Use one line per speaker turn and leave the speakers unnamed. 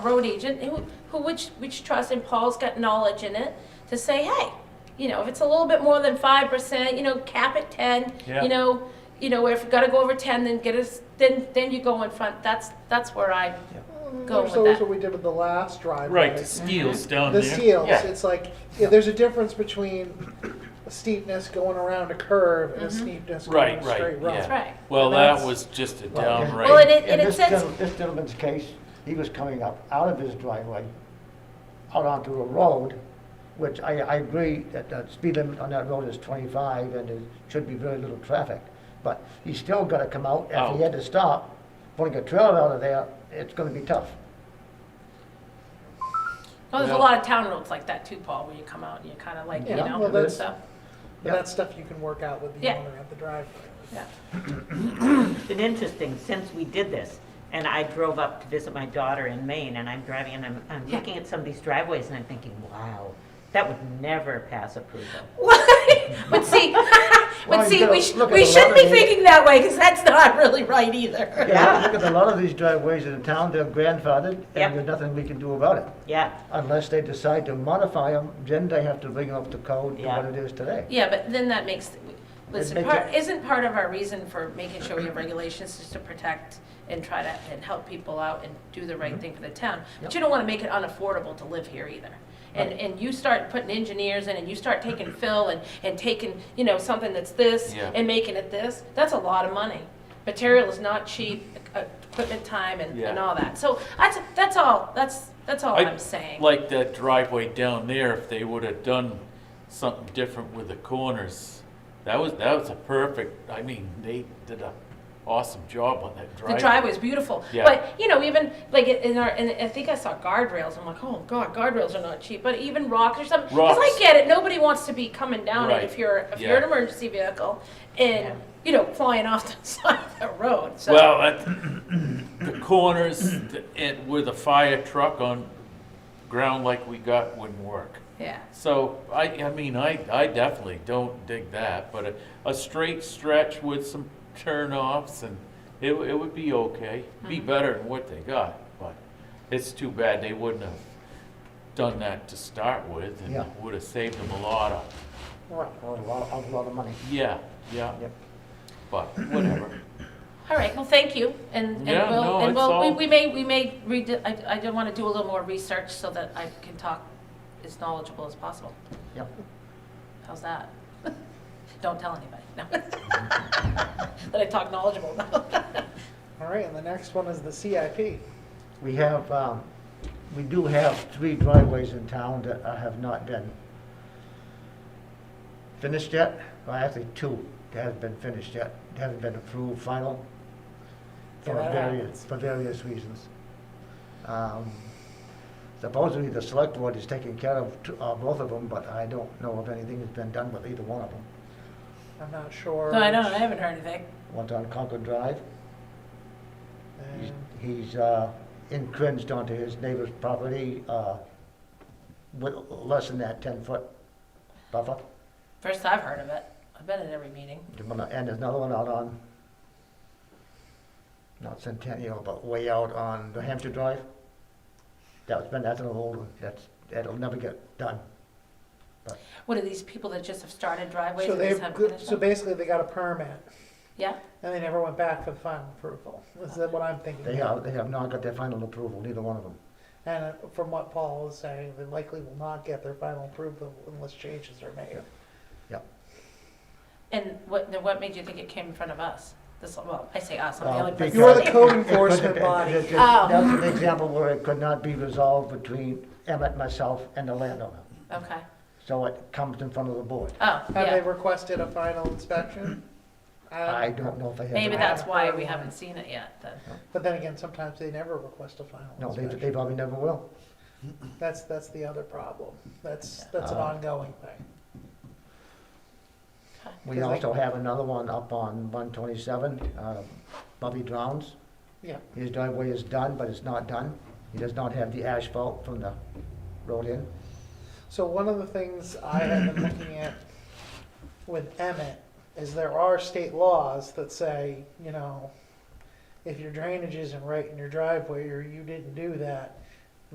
road agent who, who which which trust and Paul's got knowledge in it to say, hey, you know, if it's a little bit more than five percent, you know, cap at ten.
Yeah.
You know, you know, if you got to go over ten, then get us, then then you go in front. That's that's where I go with
So that's
that.
what we did with the last driveway.
Right, the steel's down there.
Mm-hmm. The seals,
Yeah.
it's like, yeah, there's a difference between a steepness going around a curve
Mm-hmm.
and a steepness going
Right,
a straight
right,
road.
yeah.
Right.
Well,
And
that
that's-
was just a
Well, in-
downright.
Well, it-
In
and
this
says-
gentle- this gentleman's case, he was coming up out of his driveway, out onto a road, which I, I agree that the speed limit on that road is twenty-five and there should be very little traffic. But he's still gotta come out, if he
Oh.
had to stop, pulling a trailer out of there, it's gonna be tough.
Well, there's a
Well-
lot of town roads like that too, Paul, where you come out and you kind of like, you
Yeah,
know,
well, that's-
so
But that's stuff you can work out with the
Yeah.
owner at the driveway.
yeah.
It's been interesting since we did this, and I drove up to visit my daughter in Maine, and I'm driving and I'm, I'm
Yeah.
looking at some of these driveways and I'm thinking, wow, that would never pass approval.
but see,
Well,
but
you
see,
gotta
we, sh-
look at
we
the
shouldn't be
letter.
thinking that way because that's not really right either.
Yeah.
Look at a lot of these driveways in town, they're grandfathered,
Yep.
and there's nothing we can do about it.
Yeah,
Unless they decide to modify them, then they have to bring up the code to
Yeah.
what it is today.
Yeah, but then that makes, listen,
make
part,
it-
isn't part of our reason for making sure we have regulations just to protect and try to, and help people out and do the
Mm-hmm.
right thing for the town? But you don't wanna make it unaffordable to live here either. And, and you start putting engineers in and you start taking fill and, and taking, you know, something that's this
Yeah.
and making it this, that's a lot of money. Material is not cheap, e- equipment time and, and
Yeah.
all that. So that's, that's all, that's, that's all
I
I'm saying.
Like that driveway down there, if they would have done something different with the corners, that was, that was a perfect, I mean, they did a awesome job on that driveway.
The driveway's beautiful,
Yeah.
but you know, even like in our, and I think I saw guardrails. I'm like, oh god, guardrails are not cheap. But even rocks or something, because I
Rocks.
get it. Nobody wants to be coming down it if
Right.
you're if you're an
Yeah.
emergency vehicle and
Yeah.
you know flying off the side of the road. So
Well, that, the corners and with a fire truck on ground like we got wouldn't work.
yeah,
So I, I mean, I, I definitely don't dig that, but a, a straight stretch with some turnoffs and it, w- it would be okay. Be better than what they got, but it's too bad they wouldn't have done that to start with
Yeah.
and would have saved them a lot of,
Right.
A lot, a lot of money.
yeah, yeah,
Yep.
but whatever.
all right. Well, thank you, and and
Yeah,
we'll
no,
and
it's
we'll we,
all-
we may we may read. I I do want to do a little more research so that I can talk as knowledgeable as possible.
Yep.
How's that? Don't tell anybody. No. that I talk knowledgeable.
All right, and the next one is the CIP.
We have, um, we do have three driveways in town that uh, have not been finished yet. Well, actually, two that haven't been finished yet, that haven't been approved final for
Yeah, that
various,
happens.
for various reasons. Um, Supposedly, the select board is taking care of two- uh, both of them, but I don't know if anything has been done with either one of them.
I'm not sure.
No, I don't,
which-
I haven't heard anything.
One's on Concord Drive, He's-
and-
He's uh, encroached onto his neighbor's property uh, with less than that 10-foot buffer.
First I've heard of it. I've been at every meeting.
And there's another one out on, not Centennial, but way out on New Hampshire Drive. That's been, that's an old one, that's, that'll never get done.
What are these people that just have started driveways
So
and
they,
just haven't finished
so
them?
basically they got a permit
Yeah,
and they never went back for the final approval. Is that what I'm thinking?
They have, they have not got their final approval, neither one of them.
And uh, from what Paul was saying, they likely will not get their final approval unless changes are made.
and what, then what made you think it came in front of us? This, well, I say us, I'm the
Uh,
only person.
because-
You're the code enforcement body.
That's
Oh.
an example where it could not be resolved between Emmett, myself, and the landowner.
Okay,
So it comes in front of the board.
oh,
Have they
yeah,
requested a final inspection?
I don't know if they have.
Oh. maybe
the-
that's
I-
why we haven't seen it yet then.
But then again, sometimes they never request a final
No, they,
inspection.
they probably never will.
That's, that's the other problem. That's, that's an
Uh,
ongoing thing.
We
Because I-
also have another one up on one twenty-seven, uh, Bobby Drowns.
Yeah.
His driveway is done, but it's not done. He does not have the asphalt from the road in.
So one of the things I have been looking at with Emmett is there are state laws that say, you know, if your drainage isn't right in your driveway or you didn't do that,